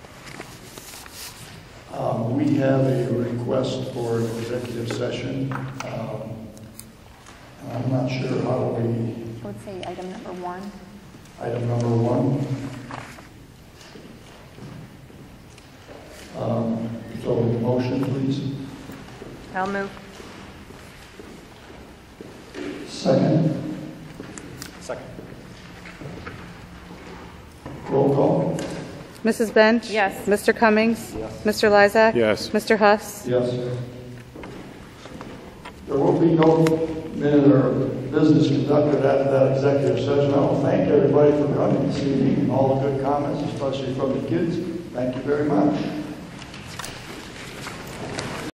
Um, We have a request for an executive session. Um, I'm not sure how we, I would say item number one. item number one. Um, So motion, please. I'll move. Second, Second. roll call. Mrs. Bench? Yes. Mr. Cummings? Mr. Lysak? Yes. Mr. Huss? Yes. There will be no minute or business conducted after that executive session. I want to thank everybody for coming this evening, all the good comments, especially from the kids. Thank you very much.